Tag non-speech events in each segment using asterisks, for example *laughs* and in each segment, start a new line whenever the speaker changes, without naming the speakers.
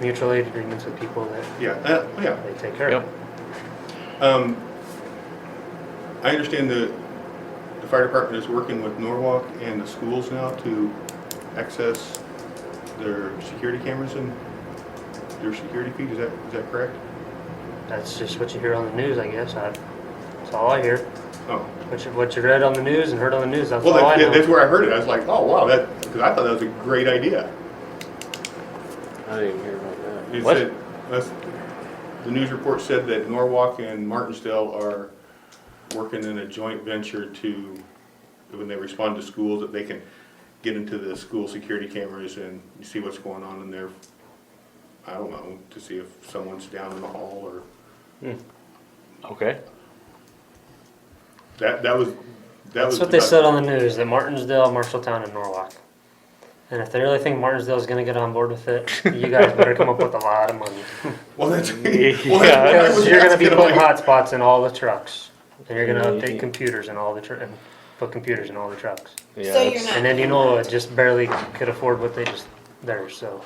mutual aid agreements with people that
Yeah, uh, yeah.
they take care of.
Um, I understand that the fire department is working with Norwalk and the schools now to access their security cameras and their security feed, is that, is that correct?
That's just what you hear on the news, I guess. I, that's all I hear.
Oh,
What you, what you read on the news and heard on the news, that's
well,
all I
that-
know.
that's where I heard it, I was like, oh, wow, that, because I thought that was a great idea.
I didn't even hear about
It
that. What?
said- that's- The news report said that Norwalk and Martinsdale are working in a joint venture to, when they respond to schools, that they can get into the school security cameras and see what's going on in there. I don't know, to see if someone's down in the hall or,
Okay.
that, that was, that was.
That's what they
about-
said on the news, that Martinsdale, Marshalltown, and Norwalk. And if they really think Martinsdale's gonna get on board with it, you guys better come up with a lot of
*laughs*
money.
Well, that's.
Yeah.
well, that's what I
Because
was
you're gonna be
asking, I'm
putting
like,
hotspots in all the trucks. And you're gonna
Yeah, you
update
can't-
computers in all the tr- and put computers in all the trucks.
Yeah,
So you're
that's-
not-
And then you know it just barely could afford what they just theirs, so.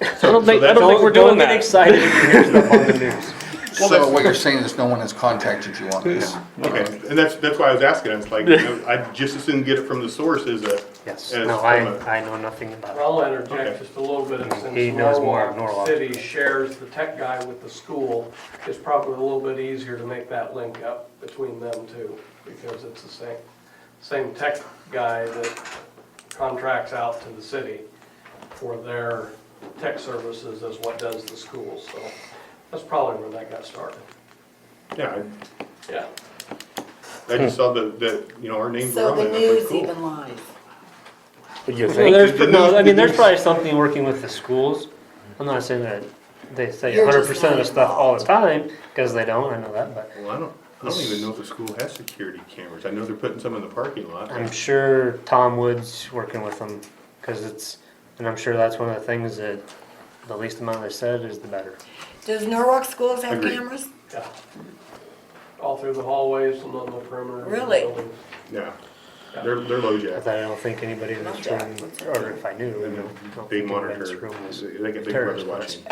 I don't think, I don't think we're
Don't
doing
get
that.
excited
*laughs*
if you hear stuff on the news.
Well,
So
that's-
what you're saying is no one has contacted you on this?
Okay, and that's, that's why I was asking, I was like, you know, I'd just as soon get it from the source as a.
Yes,
as
no,
from a-
I, I know nothing about
I'll
Okay.
interject just a little bit,
He
since
knows more of Norwalk.
Norwalk City shares the tech guy with the school, it's probably a little bit easier to make that link up between them two, because it's the same, same tech guy that contracts out to the city for their tech services as what does the school, so that's probably where that got started.
Yeah, I-
Yeah.
Hmm.
I just saw that, that, you know, our names were
So
on it,
the
and I was
news
like, cool.
even lies.
You
it. Well,
think?
there's,
The
no,
news-
I mean, there's
the news-
probably something working with the schools. I'm not saying that they say
You're
hundred
just
percent of the
not
stuff all the time, cause they don't, I know that, but
Well, I don't, I don't even know if the school has security cameras, I know they're putting some in the parking lot.
I'm sure Tom Wood's working with them, cause it's, and I'm sure that's one of the things that the least amount they said is the better.
Does Norwalk schools have
Agreed.
cameras?
Yeah. All through the hallways and on the perimeter. of the
Really?
buildings.
Yeah, they're, they're low jack,
But I don't think anybody in this room, or if I knew, I don't
big
think anybody in this
monitor,
room was,
they got big brother
terrorist
watching.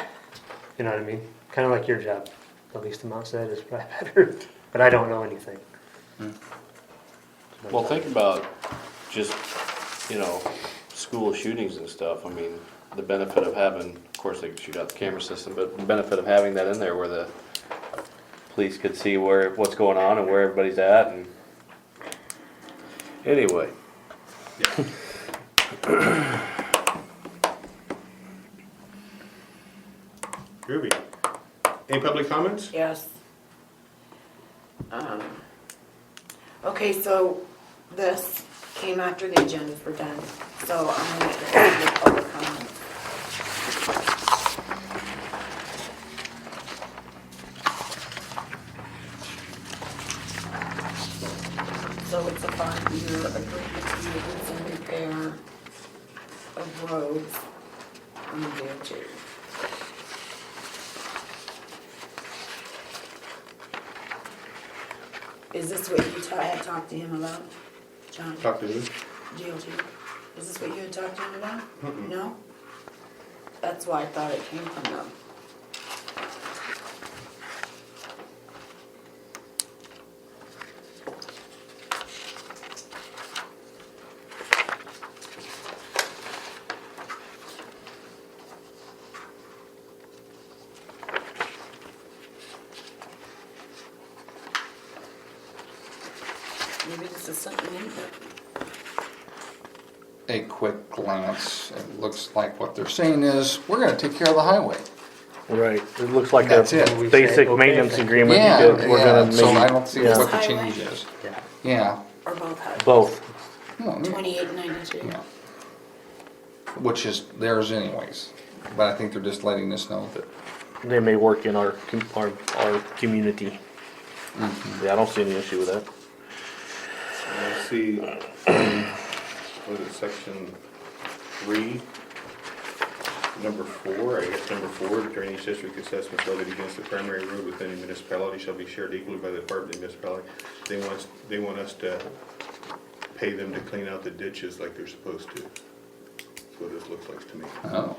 you know what I mean? Kinda like your job, the least amount said is probably *laughs* better, but I don't know anything.
Well, think about just, you know, school shootings and stuff. I mean, the benefit of having, of course, they could shoot out the camera system, but the benefit of having that in there where the police could see where, what's going on and where everybody's at and. Anyway,
Groovy. Any public comments?
Yes. Um, Okay, so this came after the agendas were done, so I'm gonna get the public comment. So it's a five-year agreement to use and repair of roads on the DOT. Is this what you ta- had talked to him about, John?
Talk to who?
DLT? Is this what you had talked to him about? No? That's why I thought it came from them. Maybe this is something new, but
A quick glance, it looks like what they're saying is, we're gonna take care of the highway.
Right, it looks like a
That's it.
We say,
basic
okay,
maintenance
thank you.
agreement.
Yeah,
you did. We're
yeah,
gonna
so I
maybe
don't see
yeah.
what the change is.
Yeah.
Yeah.
or both highways.
both.
No, no,
Twenty-eight ninety-two.
yeah. Which is theirs anyways, but I think they're just letting us know that
They may work in our, com- our, our community.
Mm-hmm.
Yeah, I don't see any issue with that.
Let's see, what is it, section three? Number four, I guess number four, the drainage district assessment levied against the primary road within a municipality shall be shared equally by the department of municipality. They want, us- they want us to pay them to clean out the ditches like they're supposed to. what this looks like to me.
Oh.